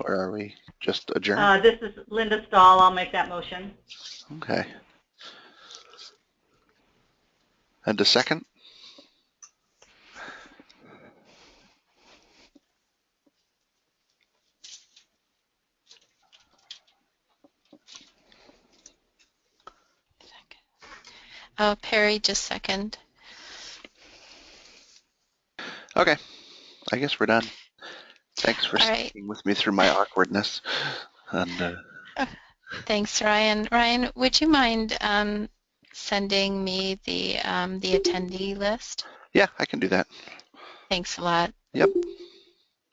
or are we just adjourned? Uh, This is Linda Stahl. I'll make that motion. Okay. And a second? Oh, Perry, just second. Okay. I guess we're done. Thanks for All right. sticking with me through my awkwardness. And uh, Thanks, Ryan. Ryan, would you mind um, sending me the um, the attendee list? yeah, I can do that. Thanks a lot. Yep.